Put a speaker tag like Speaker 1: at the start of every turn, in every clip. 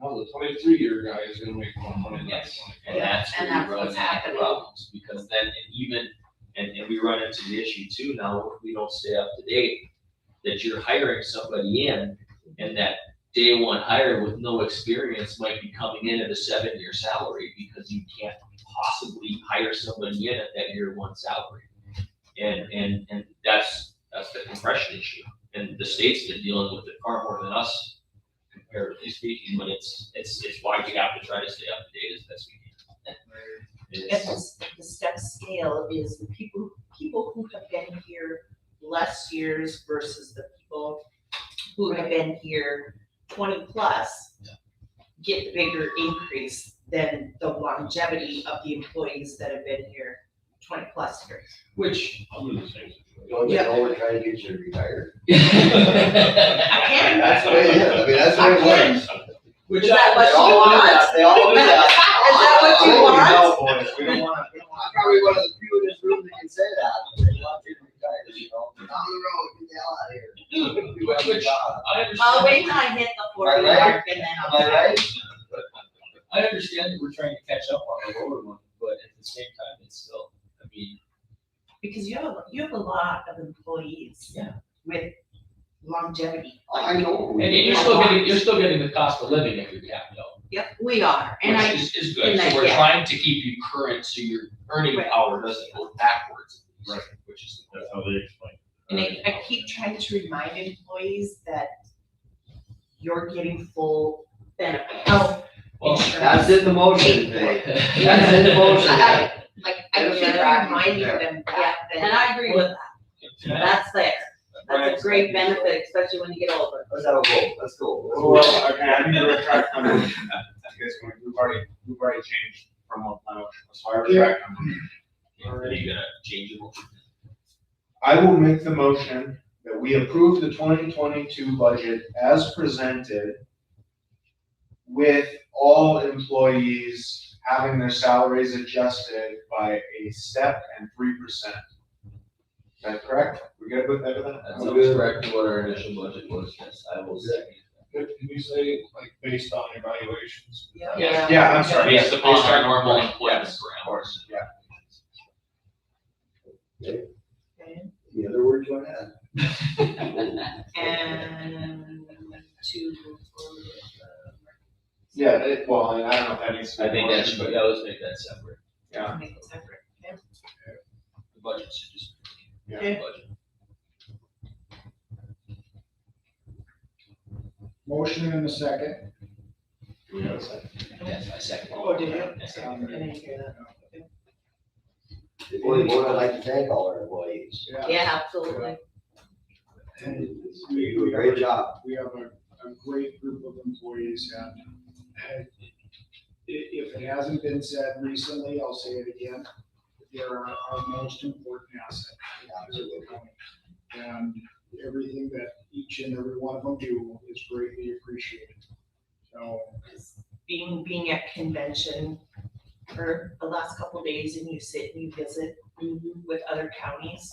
Speaker 1: populace, how many three-year guy is gonna make more money than
Speaker 2: Yes.
Speaker 1: twenty-five?
Speaker 2: And that's
Speaker 3: And
Speaker 2: where
Speaker 3: that's
Speaker 2: we run
Speaker 3: what's
Speaker 2: into
Speaker 3: happening.
Speaker 2: problems, because then and even, and, and we run into the issue too now, if we don't stay up to date, that you're hiring somebody in, and that day one hire with no experience might be coming in at a seven-year salary, because you can't possibly hire somebody in at that year one salary. And, and, and that's, that's the compression issue, and the state's been dealing with it far more than us, comparatively speaking, but it's, it's, it's why we have to try to stay up to date as best we can.
Speaker 3: And this, the step scale is the people, people who have been here less years versus the people who have been here twenty plus get the bigger increase than the longevity of the employees that have been here twenty plus years.
Speaker 2: Which.
Speaker 1: I'm in the same
Speaker 4: Don't you know we're trying to get you to retire?
Speaker 3: I can.
Speaker 4: That's what it is, I mean, that's what it
Speaker 3: I
Speaker 4: was.
Speaker 2: Which
Speaker 3: Is that
Speaker 4: They
Speaker 3: what
Speaker 4: all
Speaker 3: you
Speaker 4: do
Speaker 3: want?
Speaker 4: that, They all do that.
Speaker 3: Is that what you
Speaker 4: Oh,
Speaker 3: want?
Speaker 4: no, boys, we don't wanna- we don't wanna- I'm Probably one of the few in this room that can say that, but they want you to retire, you know, down the road, get the hell out of here. Do what you
Speaker 2: Which-
Speaker 4: got.
Speaker 2: I understand.
Speaker 3: I'll wait till I hit the forty
Speaker 4: Am I right?
Speaker 3: mark and then
Speaker 4: Am
Speaker 3: I'll.
Speaker 4: I right?
Speaker 2: I understand that we're trying to catch up on the lower one, but at the same time, it's still, I mean,
Speaker 3: Because you have, a- you have a lot of employees.
Speaker 2: Yeah.
Speaker 3: With longevity.
Speaker 4: I know.
Speaker 2: and you're still getting, you're still getting the cost of living if you have no,
Speaker 3: Yep, we are, and
Speaker 2: which
Speaker 3: I,
Speaker 2: is, is
Speaker 3: and
Speaker 2: good.
Speaker 3: I-
Speaker 2: So we're
Speaker 3: yeah.
Speaker 2: trying to keep you current, so your earning
Speaker 3: Right.
Speaker 2: power doesn't go backwards.
Speaker 1: Right.
Speaker 2: Which is. the
Speaker 1: That's
Speaker 2: goal.
Speaker 1: how they explain.
Speaker 3: and I, I keep trying to remind employees that you're getting full benefit, health
Speaker 2: Well,
Speaker 4: That's
Speaker 3: insurance.
Speaker 4: in the motion today. That's in the motion.
Speaker 2: And
Speaker 3: I- Like, I
Speaker 4: Those
Speaker 3: keep
Speaker 4: are right
Speaker 3: reminding
Speaker 4: there.
Speaker 3: them that,
Speaker 5: And
Speaker 3: that
Speaker 5: I agree with that.
Speaker 2: I-
Speaker 3: that's there, that's a great benefit, especially when you get older.
Speaker 4: Let's have a vote, let's go.
Speaker 6: Well, okay, I need to retract my motion. Because we've already, we've already changed from what uh, my motion was, so I retract my motion.
Speaker 2: Already gonna change it.
Speaker 6: I will make the motion that we approve the twenty twenty-two budget as presented with all employees having their salaries adjusted by a step and three percent. Is that correct? We good with that?
Speaker 4: That's
Speaker 6: Okay.
Speaker 4: correct to what our initial budget was, yes, I will
Speaker 1: second Can you say, like, based on evaluations?
Speaker 3: Yeah.
Speaker 6: Yeah, I'm sorry.
Speaker 2: Based
Speaker 6: yeah,
Speaker 2: upon
Speaker 6: based
Speaker 2: our
Speaker 6: on-
Speaker 2: normal
Speaker 6: right,
Speaker 2: employment
Speaker 6: yes, Of
Speaker 2: parameters.
Speaker 6: course, yeah.
Speaker 4: The other word you wanna add?
Speaker 3: And to.
Speaker 6: Yeah, it, well, I don't know if that needs to be.
Speaker 2: I think that should,
Speaker 6: but-
Speaker 2: yeah, let's make that separate.
Speaker 6: Yeah.
Speaker 3: Make it separate, okay?
Speaker 2: The budget should just.
Speaker 6: Yeah.
Speaker 3: Okay.
Speaker 2: Budget.
Speaker 6: Motion in a second.
Speaker 4: Do we have a second?
Speaker 2: Yes, I second.
Speaker 3: Oh, did you?
Speaker 2: Yes.
Speaker 3: I didn't hear that.
Speaker 4: Before we vote, I'd like to thank all our employees.
Speaker 3: Yeah, absolutely.
Speaker 4: You do a great job.
Speaker 7: We have a, a great group of employees and and i- if it hasn't been said recently, I'll say it again. They're our our most important asset. And everything that each and every one of them do is greatly appreciated. So
Speaker 3: being, being at convention for the last couple of days and you sit and you visit with other counties.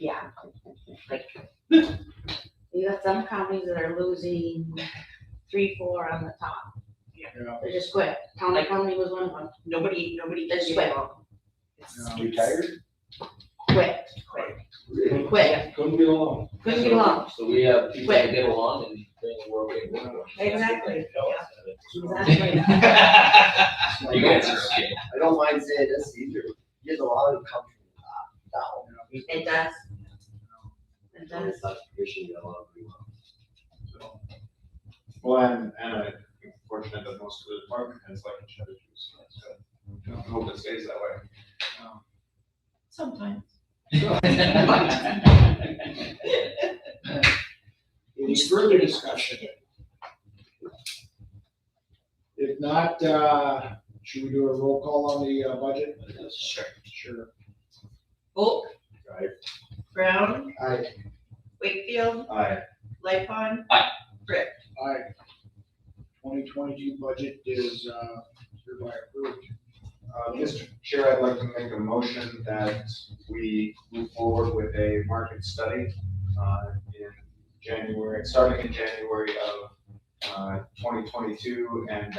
Speaker 3: Yeah, like,
Speaker 5: You got some companies that are losing three, four on the top.
Speaker 7: Yeah.
Speaker 5: They just quit. County Company was one of them.
Speaker 3: nobody, nobody
Speaker 5: That's
Speaker 3: does
Speaker 5: right.
Speaker 7: Yeah.
Speaker 4: Retired?
Speaker 5: Quit,
Speaker 4: Really?
Speaker 5: quit.
Speaker 1: Couldn't be alone.
Speaker 5: Couldn't get along.
Speaker 2: So we have people that get along and bring the world we want.
Speaker 3: Exactly, Exactly.
Speaker 2: Exactly. You guys are okay.
Speaker 4: I don't mind saying this either. You get a lot of come from the top
Speaker 3: It does. It
Speaker 4: down.
Speaker 3: does.
Speaker 4: It's not tradition, you get a lot of people.
Speaker 6: Well, and, and I'm fortunate that most of the department heads like each other too, so that's good. I hope it stays that way.
Speaker 3: Sometimes.
Speaker 7: any further discussion? If not, uh, should we do a roll call on the uh, budget?
Speaker 3: Sure.
Speaker 7: Sure.
Speaker 3: Volk,
Speaker 6: Right.
Speaker 3: Brown,
Speaker 4: I,
Speaker 3: Wakefield,
Speaker 6: Aye.
Speaker 3: Lightfon.
Speaker 7: Aye. Twenty twenty-two budget is, uh, hereby approved.
Speaker 6: Uh, Mr. Chair, I'd like to make a motion that we move forward with a market study, uh, in January, starting in January of
Speaker 7: uh, twenty twenty-two and